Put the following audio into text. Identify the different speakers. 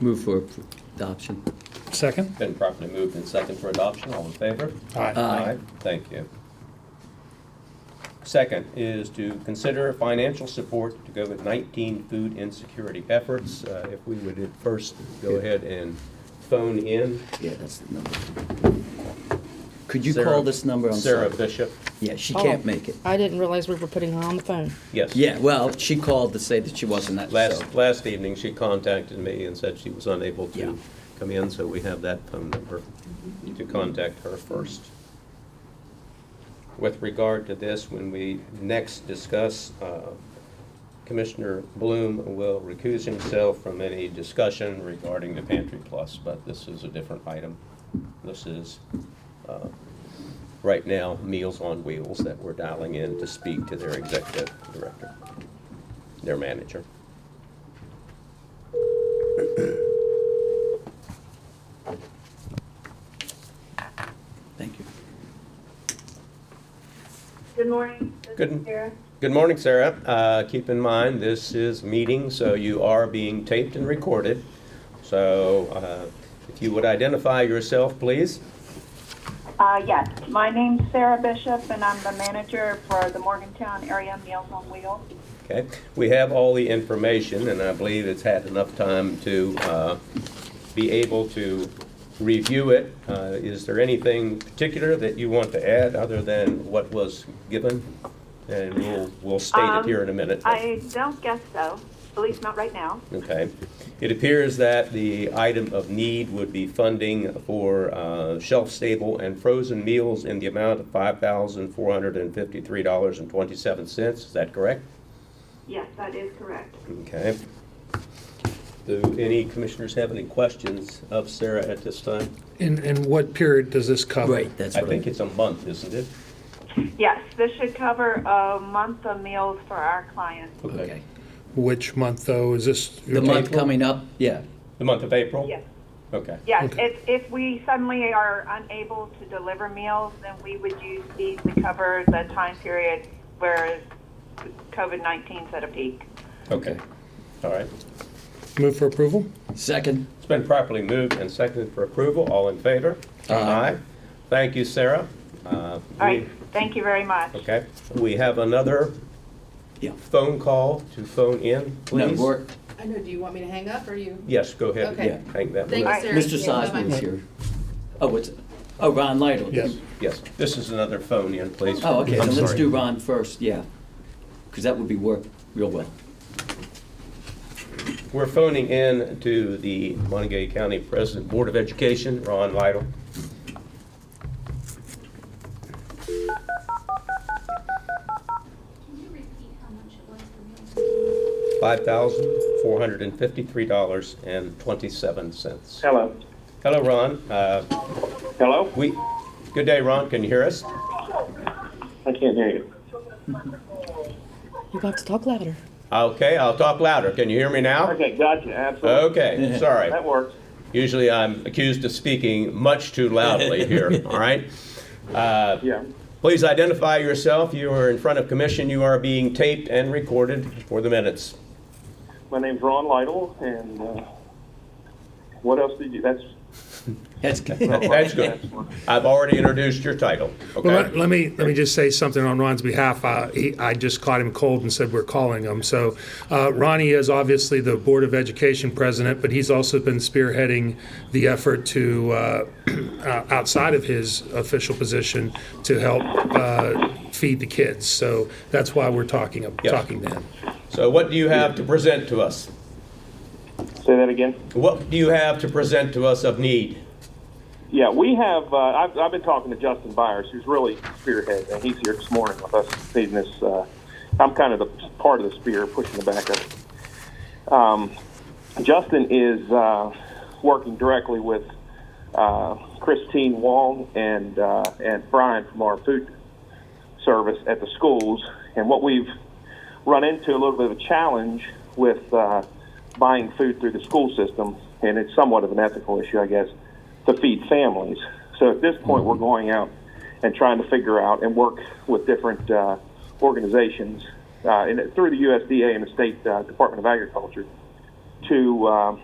Speaker 1: Move for appro- adoption.
Speaker 2: Second?
Speaker 3: Been properly moved and second for adoption, all in favor?
Speaker 2: Aye.
Speaker 1: Aye.
Speaker 3: Thank you. Second is to consider financial support to COVID-19 food insecurity efforts. Uh, If we would at first go ahead and phone in.
Speaker 1: Yeah, that's the number. Could you
Speaker 3: Sarah-
Speaker 1: call this number? I'm
Speaker 3: Sarah
Speaker 1: sorry.
Speaker 3: Bishop,
Speaker 1: Yeah, she
Speaker 4: Oh,
Speaker 1: can't make it.
Speaker 4: I didn't realize we were putting her on the phone.
Speaker 3: yes.
Speaker 1: Yeah, well, she called to say that she wasn't at, so.
Speaker 3: Last, last evening, she contacted me and said she was unable
Speaker 1: Yeah.
Speaker 3: to come in, so we have that phone number to contact her first. With regard to this, when we next discuss, uh, Commissioner Bloom will recuse himself from any discussion regarding the Pantry Plus, but this is a different item. This is, uh, right now, Meals on Wheels that we're dialing in to speak to their executive director, their manager.
Speaker 1: Thank you.
Speaker 5: Good morning. This
Speaker 3: Good-
Speaker 5: is Sarah.
Speaker 3: Good morning, Sarah. Uh, Keep in mind, this is meeting, so you are being taped and recorded. So uh, if you would identify yourself, please.
Speaker 5: Uh, yes, my name's Sarah Bishop, and I'm the manager for the Morgantown Area Meals on Wheels.
Speaker 3: Okay, we have all the information, and I believe it's had enough time to uh, be able to review it. Uh, Is there anything particular that you want to add other than what was given? And we'll, we'll state it here in a minute.
Speaker 5: I don't guess so, at least not right now.
Speaker 3: Okay. It appears that the item of need would be funding for uh, shelf-stable and frozen meals in the amount of $5,453.27. Is that correct?
Speaker 5: Yes, that is correct.
Speaker 3: Okay. Do any commissioners have any questions of Sarah at this time?
Speaker 2: And, and what period does this cover?
Speaker 1: Right, that's
Speaker 3: I
Speaker 1: what I.
Speaker 3: think it's a month, isn't it?
Speaker 5: Yes, this should cover a month of meals for our clients.
Speaker 1: Okay.
Speaker 2: Which month, though? Is this?
Speaker 1: The month
Speaker 2: April?
Speaker 1: coming up, yeah.
Speaker 3: The month of April?
Speaker 5: Yes.
Speaker 3: Okay.
Speaker 5: Yes,
Speaker 2: Okay.
Speaker 5: if, if we suddenly are unable to deliver meals, then we would use these to cover the time period where COVID-19's at a peak.
Speaker 3: Okay. All right.
Speaker 2: Move for approval?
Speaker 1: Second,
Speaker 3: It's been properly moved and seconded for approval. All in favor?
Speaker 1: Aye.
Speaker 3: Thank you, Sarah. Uh, All
Speaker 5: All right, thank you very much.
Speaker 3: Okay, we have another
Speaker 1: yeah.
Speaker 3: phone call to phone in,
Speaker 1: No,
Speaker 3: please.
Speaker 1: we're-
Speaker 6: I know, do you want me to hang up, or you?
Speaker 3: Yes, go ahead.
Speaker 6: Okay.
Speaker 1: Yeah.
Speaker 3: Hang that
Speaker 6: Thank
Speaker 3: one.
Speaker 6: you,
Speaker 5: Alright.
Speaker 6: sir.
Speaker 1: Mr.
Speaker 6: Yeah, bye-bye.
Speaker 1: Sosman is here. Oh, what's, oh, Ron Lytle.
Speaker 2: Yes.
Speaker 3: Yes, this is another phone in, please.
Speaker 1: Oh, okay,
Speaker 7: I'm
Speaker 1: then let's
Speaker 7: sorry.
Speaker 1: do Ron first, yeah. Because that would be work real well.
Speaker 3: We're phoning in to the Montague County President Board of Education, Ron Lytle.
Speaker 8: Can you repeat how much it was for meals?
Speaker 3: Five thousand four hundred and fifty-three dollars and twenty-seven cents.
Speaker 9: Hello.
Speaker 3: Hello, Ron. Uh,
Speaker 9: Hello?
Speaker 3: We, good day, Ron, can you hear us?
Speaker 9: I can't hear you.
Speaker 4: You got to talk louder.
Speaker 3: Okay, I'll talk louder. Can you hear me now?
Speaker 9: Okay, gotcha, absolutely.
Speaker 3: Okay, sorry.
Speaker 9: That works.
Speaker 3: Usually I'm accused of speaking much too loudly here, all right? Uh,
Speaker 9: Yeah.
Speaker 3: Please identify yourself. You are in front of commission. You are being taped and recorded for the minutes.
Speaker 9: My name's Ron Lytle, and, uh, what else did you, that's.
Speaker 1: That's,
Speaker 3: That's good. I've already introduced your title,
Speaker 2: Well, let-
Speaker 3: okay?
Speaker 2: let me, let me just say something on Ron's behalf. Uh, he- I just caught him cold and said we're calling him. So uh, Ronnie is obviously the Board of Education president, but he's also been spearheading the effort to, uh, uh, outside of his official position, to help uh, feed the kids. So that's why we're talking,
Speaker 3: Yeah.
Speaker 2: talking to him.
Speaker 3: So what do you have to present to us?
Speaker 9: Say that again?
Speaker 3: What do you have to present to us of need?
Speaker 9: Yeah, we have, uh, I've, I've been talking to Justin Byers, who's really spearhead, and he's here this morning with us feeding this, uh, I'm kind of the part of the spear pushing the back of it. Um, Justin is, uh, working directly with, uh, Christine Wong and, uh, and Brian from our food service at the schools. And what we've run into a little bit of a challenge with uh, buying food through the school system, and it's somewhat of an ethical issue, I guess, to feed families. So at this point, we're going out and trying to figure out and work with different uh, organizations uh, and through the USDA and the State uh, Department of Agriculture to uh,